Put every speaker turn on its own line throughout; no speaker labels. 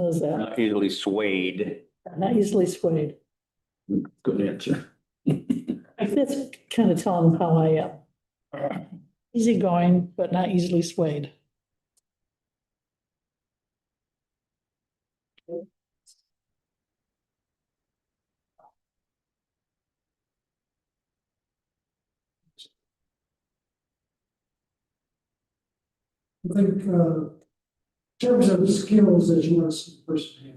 knows that,
Not Uh, easily swayed.
uh, not easily swayed.
Good answer.
That's kind of telling them how I am. Easygoing, but not easily swayed.
I think, uh, in terms of skills that you want to see a person have.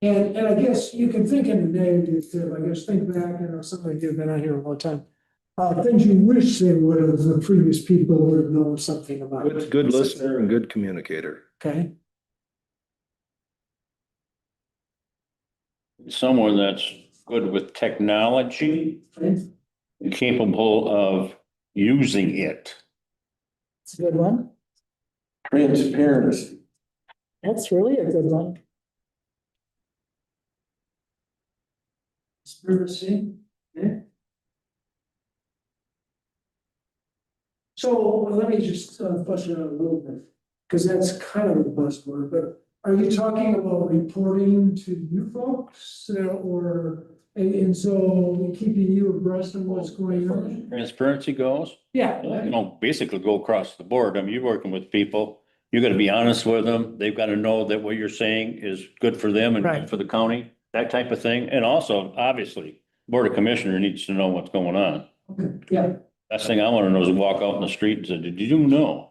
And, and I guess you can think in the negative too, I guess, think back, you know, some of you have been out here a long time. Uh, things you wish they would have, the previous people would have known something about.
Good, good listener and good communicator.
Okay,
Someone that's good with technology,
okay,
capable of using it.
It's a good one.
Transparency.
That's really a good one.
conspiracy, okay. So let me just uh, flesh it out a little bit, because that's kind of a buzzword, but are you talking about reporting to you folks? uh, Or, and, and so keeping you abreast of what's going on?
Transparency goes, you
Yeah.
know, basically go across the board. I mean, you're working with people. You gotta be honest with them. They've gotta know that what you're saying is good for them and
Right.
good for the county, that type of thing. And also, obviously, Board of Commissioner needs to know what's going on.
Okay, Yeah,
Last thing I wanna know is walk out in the street and say, did you know?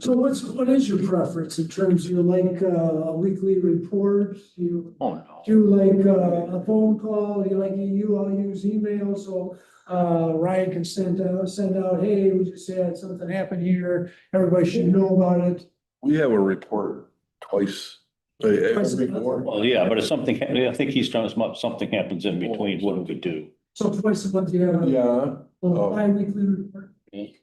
so what's, what is your preference in terms, you like uh, a weekly report, you?
Oh, no.
do like uh, a phone call, you like, you all use email, so uh, Ryan can send out, send out, hey, we just had something happen here, everybody should know about it.
We have a report twice. uh, every board.
Well, yeah, but if something, I think he's trying to, sm- something happens in between, what do we do?
So twice a month you have a
Yeah,
little bi-weekly report.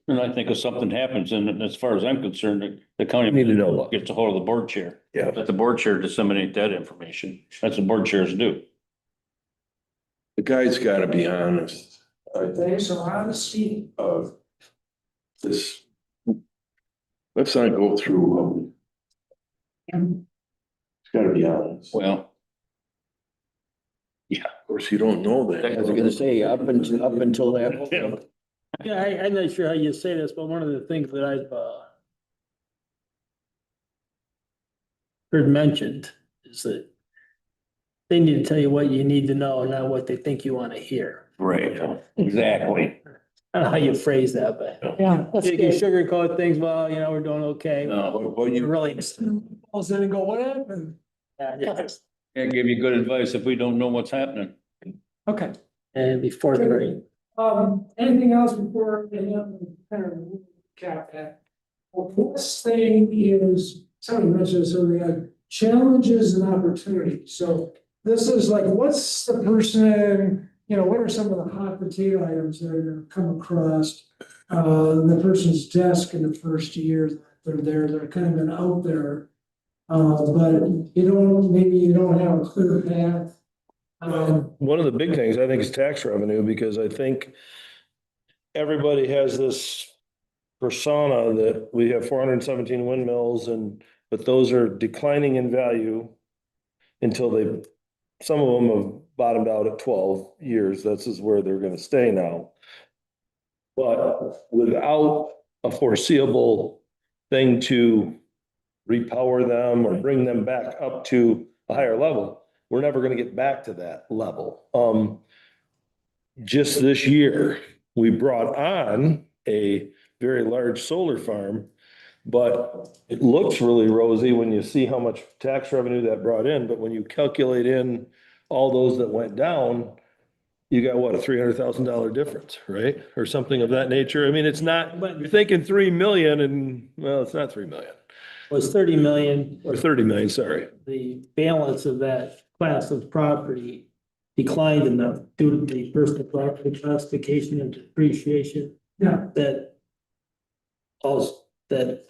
And I think if something happens, and as far as I'm concerned, the- the county.
Need to know.
Gets a hold of the board chair.
Yeah.
Let the board chair disseminate that information. That's what board chairs do.
the guy's gotta be honest. I think
There's a lot of speed.
of this. Let's not go through. um, It's gotta be honest. Of
Well,
course, you don't know that.
I was gonna say, up until, up until
Yeah.
that.
Yeah, I, I'm not sure how you say this, but one of the things that I've, uh, heard mentioned is that they need to tell you what you need to know, not what they think you want to hear.
right, exactly.
I don't know how you phrase that, but
Yeah, that's
you can
good.
sugarcoat things, well, you know, we're doing okay.
No,
Well, you
Really,
Calls in and go, what happened?
yeah, yeah.
can't give you good advice if we don't know what's happening.
Okay.
and it'd be fourth grade.
Um, anything else before, we kind of cap that? Well, this thing is, somebody mentioned this earlier, challenges and opportunities, so this is like, what's the person, you know, what are some of the hot potato items that are come across? Uh, the person's desk in the first year, that they're there, they're kind of been out there. Uh, but you don't, maybe you don't have a clear path. Um,
One of the big things, I think, is tax revenue, because I think everybody has this persona that we have four hundred and seventeen windmills and, but those are declining in value until they, some of them have bottomed out at twelve years. This is where they're gonna stay now. But without a foreseeable thing to repower them or bring them back up to a higher level, we're never gonna get back to that level. Um, just this year, we brought on a very large solar farm. But it looks really rosy when you see how much tax revenue that brought in, but when you calculate in all those that went down, you got what, a three hundred thousand dollar difference, right? Or something of that nature. I mean, it's not,
But
you're
it
thinking three million and, well, it's not three million,
was thirty million,
or thirty million, sorry.
the balance of that class of property declined enough due to the personal property classification and depreciation
yeah,
that also, that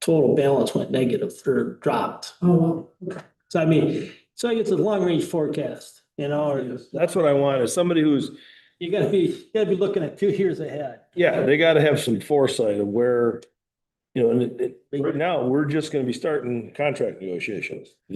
total balance went negative or dropped.
oh, well,
So I mean, so it's a long range forecast, you know, or
That's what I want, is somebody who's
you gotta be, you gotta be looking at two years ahead.
Yeah, they gotta have some foresight of where, you know, and it, it, right now, we're just gonna be starting contract negotiations.